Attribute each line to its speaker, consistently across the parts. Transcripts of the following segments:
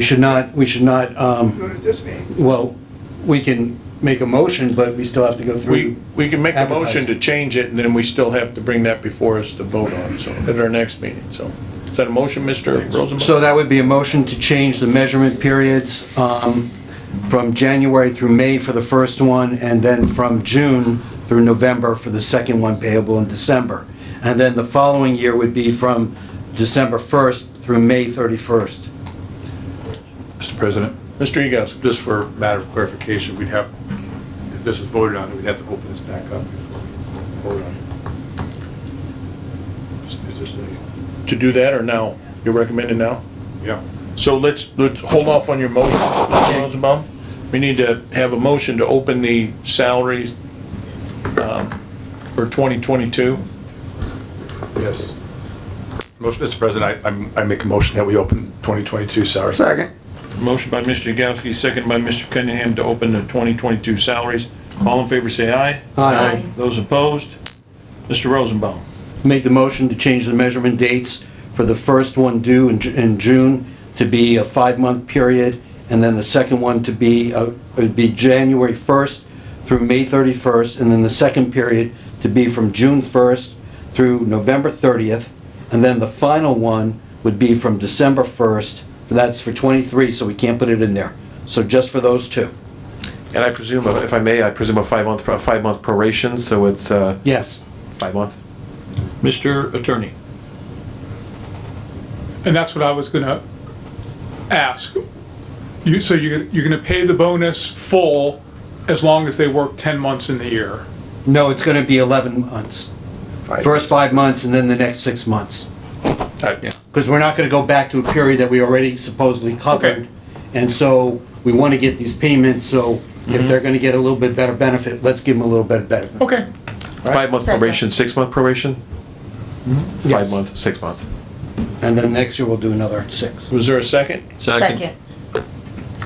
Speaker 1: We should not, we should not, um,
Speaker 2: Go to this meeting.
Speaker 1: well, we can make a motion, but we still have to go
Speaker 3: We,
Speaker 1: through.
Speaker 3: we can make a motion to
Speaker 1: advertising.
Speaker 3: change it, and then we still have to bring that before us to vote on, so, at our next meeting, so. Is that a motion, Mr. Rosenbaum?
Speaker 1: So that would be a motion to change the measurement periods um, from January through May for the first one, and then from June through November for the second one payable in December. And then the following year would be from December 1st through May 31st.
Speaker 4: Mr. President,
Speaker 3: Mr. Yagowski,
Speaker 4: just for matter of clarification, we'd have, if this is voted on, we'd have to open this back up before we vote on it. Just- it's just a-
Speaker 3: to do that or now? You're recommending now?
Speaker 4: Yeah,
Speaker 3: So let's, let's hold off on your motion, Mr. Rosenbaum. We need to have a motion to open the salaries um, for 2022.
Speaker 4: yes. Motion, Mr. President, I, I'm- I make a motion that we open 2022 salary. Second.
Speaker 3: Motion by Mr. Yagowski, second by Mr. Cunningham to open the 2022 salaries. All in favor, say aye.
Speaker 1: Aye.
Speaker 3: Those opposed? Mr. Rosenbaum?
Speaker 1: Make the motion to change the measurement dates for the first one due in, Ju- in June to be a five-month period, and then the second one to be, uh, would be January 1st through May 31st, and then the second period to be from June 1st through November 30th, and then the final one would be from December 1st, that's for 23, so we can't put it in there. So just for those two.
Speaker 5: And I presume, if I may, I presume a five-month, a five-month proration, so it's, uh,
Speaker 1: Yes.
Speaker 5: five months?
Speaker 3: Mr. Attorney?
Speaker 6: And that's what I was gonna ask. You, so you're, you're gonna pay the bonus full as long as they work ten months in the year?
Speaker 1: No, it's gonna be 11 months. First five months, and then the next six months.
Speaker 3: Yeah.
Speaker 1: because we're not going to go back to a period that we already supposedly covered.
Speaker 6: Okay.
Speaker 1: And so we want to get these payments, so if they're going to get a little bit better benefit, let's give them a little bit better. benefit.
Speaker 6: Okay,
Speaker 5: Five-month
Speaker 7: Second.
Speaker 5: probation, six-month probation?
Speaker 1: Yes.
Speaker 5: Five-month, six-month.
Speaker 1: And then next year we'll do another six.
Speaker 3: Was there a second?
Speaker 7: Second.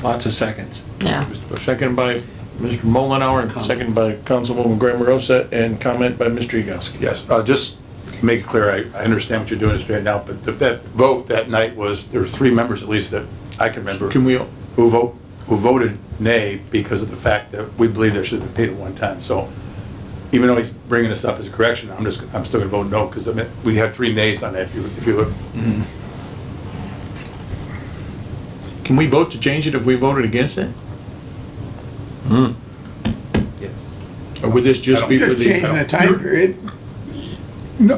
Speaker 3: Lots of seconds.
Speaker 7: Yeah.
Speaker 3: Second by Mr. Mullenhour, and second by Councilwoman Graham Rosa, and comment by Mr. Yagowski.
Speaker 4: Yes, uh, just make it clear, I, I understand what you're doing is right now, but th- that vote that night was, there were three members at least that I can remember.
Speaker 3: Can we-
Speaker 4: Who vote, who voted nay because of the fact that we believe there should have been paid at one time, so even though he's bringing this up as a correction, I'm just, I'm still gonna vote no, because I mean, we had three nays on that, if you, if you look.
Speaker 3: Can we vote to change it if we voted against it?
Speaker 4: Yes.
Speaker 3: Or would this just be for the?
Speaker 2: Just changing the time period.
Speaker 6: no,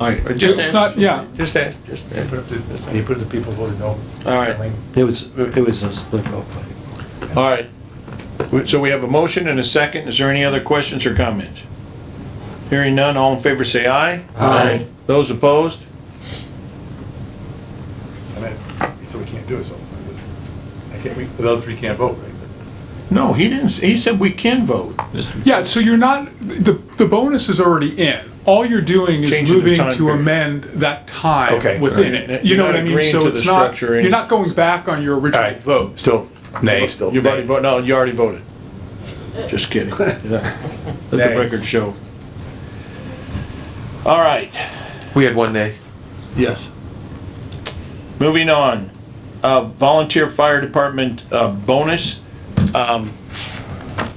Speaker 3: All right, just
Speaker 6: It's
Speaker 3: ask.
Speaker 6: not- yeah.
Speaker 3: Just ask, just
Speaker 4: And you put it to- and you put it to people who voted no.
Speaker 3: All right.
Speaker 1: It was, it was a split vote.
Speaker 3: All right. So we have a motion and a second. Is there any other questions or comments? Hearing none, all in favor say aye.
Speaker 7: Aye.
Speaker 3: Those opposed?
Speaker 4: I mean, so we can't do it, so, I just- I can't, we, the other three can't vote, right?
Speaker 3: No, he didn't, s- he said we can vote.
Speaker 6: yeah, so you're not, the, the bonus is already in. All you're doing is
Speaker 3: Changing the
Speaker 6: moving
Speaker 3: time
Speaker 6: to
Speaker 3: period.
Speaker 6: amend that time
Speaker 4: Okay.
Speaker 6: within
Speaker 3: Right.
Speaker 6: it.
Speaker 3: You're
Speaker 6: You know
Speaker 3: not
Speaker 6: what I mean?
Speaker 3: agreeing
Speaker 6: So
Speaker 3: to the
Speaker 6: it's not,
Speaker 3: structure or
Speaker 6: you're not going back on your
Speaker 4: All
Speaker 6: original
Speaker 4: right,
Speaker 6: vote.
Speaker 4: vote, still nay, still.
Speaker 3: You've already
Speaker 4: nay.
Speaker 3: voted, no, you already voted. Just kidding. Let the
Speaker 4: Nay.
Speaker 3: record show. All right,
Speaker 5: We had one day.
Speaker 3: yes. Moving on, uh, volunteer fire department, uh, bonus. Um,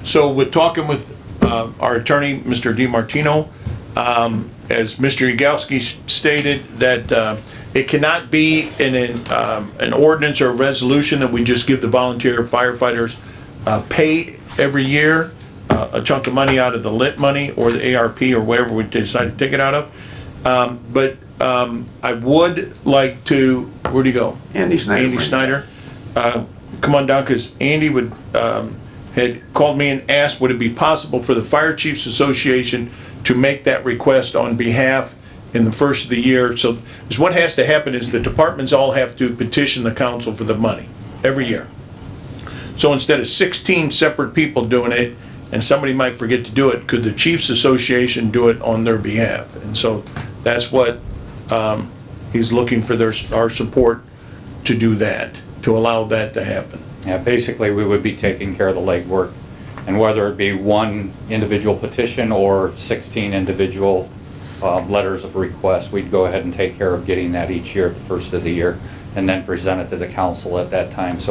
Speaker 3: So we're talking with, uh, our attorney, Mr. DiMartino. Um, as Mr. Yagowski s- stated, that, uh, it cannot be in an, um, an ordinance or a resolution that we just give the volunteer firefighters, uh, pay every year, uh, a chunk of money out of the lit money or the ARP or wherever we decide to take it out of. Um, but, um, I would like to, where'd he go?
Speaker 2: Andy Snyder.
Speaker 3: Andy Snyder, uh, come on down, because Andy would, um, had called me and asked, would it be possible for the Fire Chiefs Association to make that request on behalf in the first of the year? So, is what has to happen is the departments all have to petition the council for the money, every year. So instead of 16 separate people doing it, and somebody might forget to do it, could the Chiefs Association do it on their behalf? And so that's what um, he's looking for their, our support to do that, to allow that to happen.
Speaker 8: Yeah, basically, we would be taking care of the legwork. And whether it be one individual petition or 16 individual um, letters of request, we'd go ahead and take care of getting that each year at the first of the year. and then present it to the council at that time. So